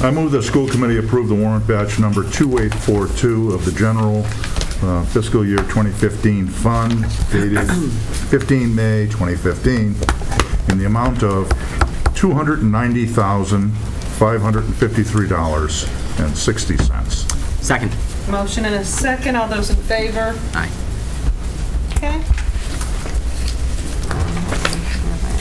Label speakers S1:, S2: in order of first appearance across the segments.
S1: I move the school committee approve the warrant batch number 2842 of the general uh, fiscal year 2015 fund dated 15 May 2015 in the amount of $290,553.60.
S2: Second.
S3: Motion and a second, all those in favor?
S2: Aye.
S3: Okay.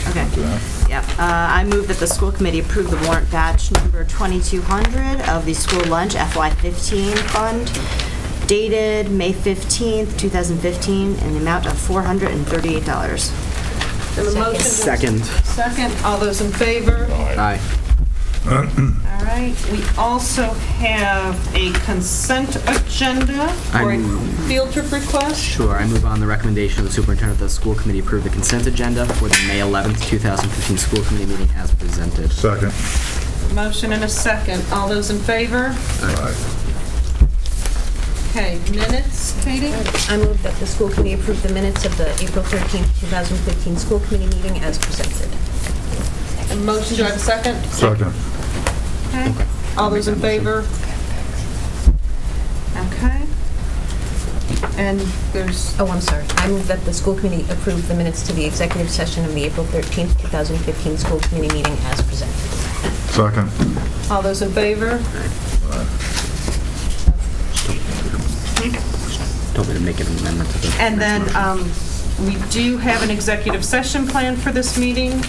S4: Okay. Yep. Uh, I move that the school committee approve the warrant batch number 2200 of the school lunch FY15 fund dated May 15th, 2015, in the amount of $438.
S3: And the motion to-
S2: Second.
S3: Second, all those in favor?
S2: Aye.
S3: All right, we also have a consent agenda for a field trip request.
S2: Sure, I move on the recommendation of the superintendent that the school committee approve the consent agenda for the May 11th, 2015 school committee meeting as presented.
S1: Second.
S3: Motion and a second, all those in favor? Okay, minutes, Katie?
S5: I move that the school committee approve the minutes of the April 13th, 2015 school committee meeting as presented.
S3: A motion, do I have a second?
S1: Second.
S3: Okay. All those in favor? Okay. And there's,
S5: Oh, I'm sorry. I move that the school committee approve the minutes to the executive session of the April 13th, 2015 school committee meeting as presented.
S1: Second.
S3: all those in favor?
S2: Told me to make an amendment to the...
S3: And
S2: next
S3: then
S2: motion.
S3: um, we do have an executive session planned for this meeting.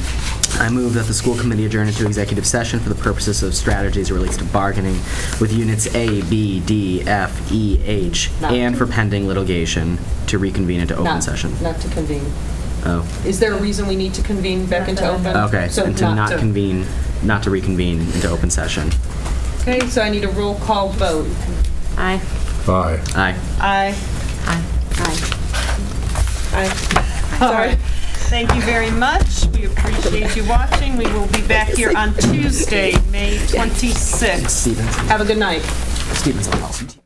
S2: I move that the school committee adjourn into executive session for the purposes of strategies related to bargaining with units A, B, D, F, E, H,
S3: Not-
S2: and for pending litigation to reconvene into open
S3: Not-
S2: session.
S3: Not to convene.
S2: Oh,
S3: Is there a reason we need to convene back into open?
S2: okay.
S3: So
S2: And to not convene, not to reconvene into open session.
S3: Okay, so I need a roll call vote.
S4: Aye.
S1: Aye.
S2: Aye.
S3: Aye.
S4: Aye. Aye.
S3: Aye. All right. Thank you very much. We appreciate you watching. We will be back here on Tuesday, May 26th.
S2: Stevens.
S3: Have a good night.
S2: Stevens on policy.